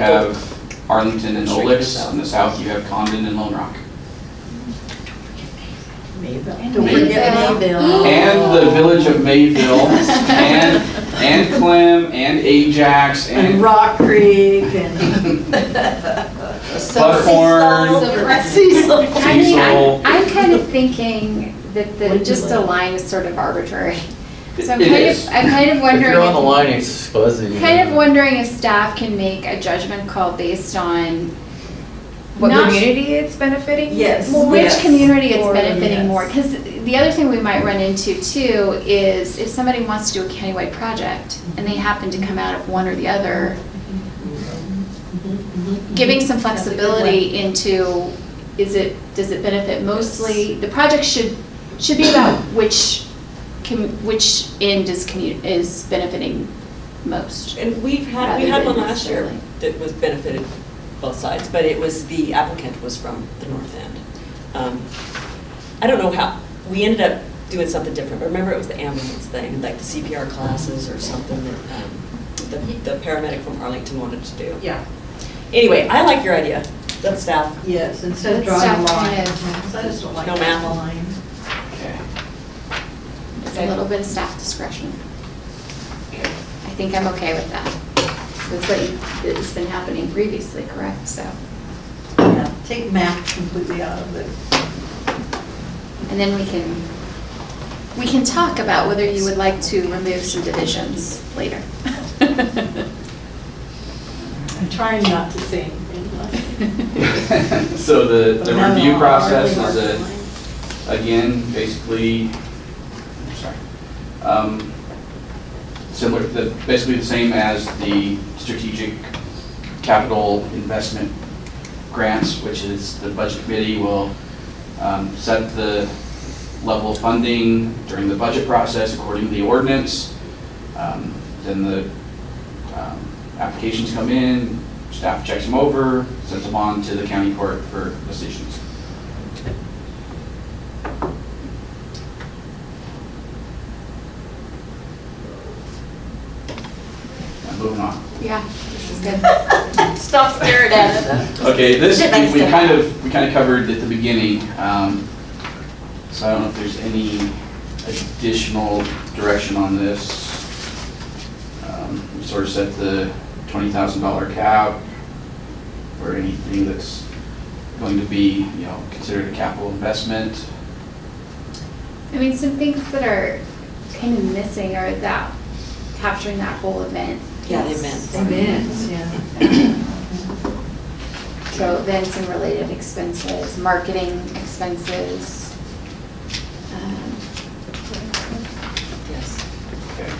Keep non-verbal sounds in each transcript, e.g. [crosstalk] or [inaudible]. You Oh. have Arlington and Olix. On the south, you have Condon and Lone Rock. Don't forget Mayville. And Oh. the village of [laughs] Mayville, and, and Clem, and Ajax, And and [laughs] Rock Creek and Buckhorn, [laughs] Cecil. I mean, Cecil. I'm, I'm kind of thinking that What do the, you just the like? line is sort of arbitrary. So I'm It kind is. of, I'm kind of If wondering, you're on the if- line, it's fuzzy. kind of wondering if staff can make a judgment call based on What Not- community it's benefiting? Yes. Well, which community it's Or- benefiting more, yes. because the other thing we might run into too is if somebody wants to do a countywide project and they happen to come out of one or the other, giving some That's a good flexibility into, is it, does it benefit mostly, the project should, should be about which, com- which end is commu, is benefiting most. And we've had, we had rather than one last year necessarily. that was benefited both sides, but it was, the applicant was from the north end. Um, I don't know how, we ended up doing something different, but remember it was the ambulance thing, like the CPR classes or something that um, the the paramedic from Arlington wanted to do. Yeah. Anyway, I like your idea, that's staff. Yes, instead of That stuff drawing a line. kind of- So I just don't like No that math. line. Okay. It's a little bit of staff discretion. I think I'm okay with that. With what you- that's been happening previously, correct? So, Yeah, Take math completely out of it. and then we can, we can talk about whether you would like to remove some divisions later. [laughs] I'm trying not to say anything like. [laughs] So the, the No, no, review no, process really is hard a, to line. again, basically, I'm sorry, um, similar, the- basically the same as the strategic capital investment grants, which is the budget committee will um, set the level of funding during the budget process according to the ordinance. Um, Then the um, applications come in, staff checks them over, sends them on to the county court for decisions. And moving on. Yeah, this is good. [laughs] Stop staring at it. Okay, this, Shit, thanks, we we Deb. kind of, we kind of covered at the beginning, um, so I don't know if there's any additional direction on this. Um, We Sort of set the twenty thousand dollar cap for anything that's going to be, you know, considered a capital investment. I mean, some things that are kind of missing are that, capturing that whole event. Yeah, they meant. Events, yeah. So events and related expenses, marketing expenses. um, Yes. Okay.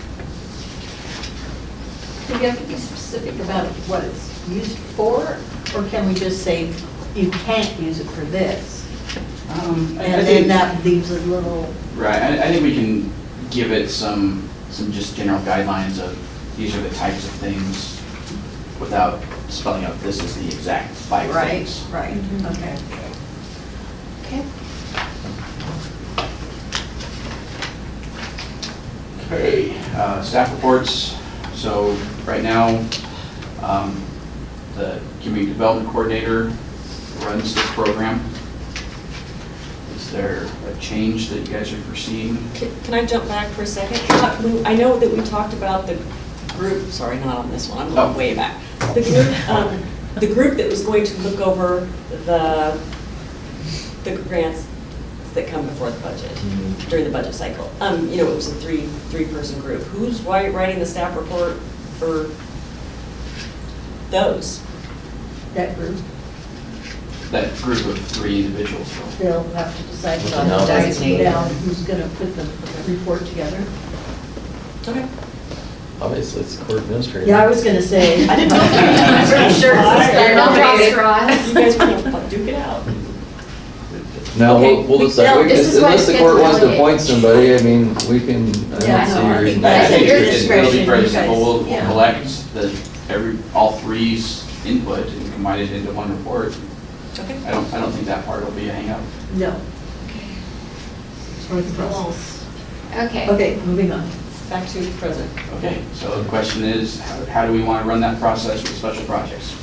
Do we have to be specific about what it's used for, or can we just say, you can't use it for this? Um, I- I And think- then that leaves a little, Right, I, I think we can give it some, some just general guidelines of, these are the types of things, without spelling out, this is the exact five right, things. right, okay. [laughs] Okay. Okay, uh, staff reports, so right now, um, the community development coordinator runs this program. Is there a change that you guys are foreseeing? Can can I jump back for a second? Uh, we- I know that we talked about the group, sorry, not on this one, I'm Oh. going way back. The group, um, the group that was going to look over the, the grants that come before the budget, Mm, during the budget cycle. Um, you know, it was a three, three-person group. Who's wri- writing the staff report for those? That group, That group of three individuals, they'll have to decide With the on numbers. designate down who's gonna put the report together. Okay. Obviously, it's the court administrator. Yeah, I was gonna say. I didn't know. [laughs] I'm pretty sure it's I- they're nominated. You guys want to duke it out? No, Okay, we'll, we'll we- decide, no, We- this is why unless it's the court good to wants to delegate. appoint somebody, I mean, we can, I Yeah, don't no, see I a think reason. that's why at I think your it- It'll be discretion, very you simple, guys- we'll, we'll yeah. collect the, every, all three's input and combine it into one report. Okay. I don't, I don't think that part will be a hangup. No. Or the process. Okay. Okay, moving on. Back to present. Okay, so the question is, how, how do we want to run that process with special projects?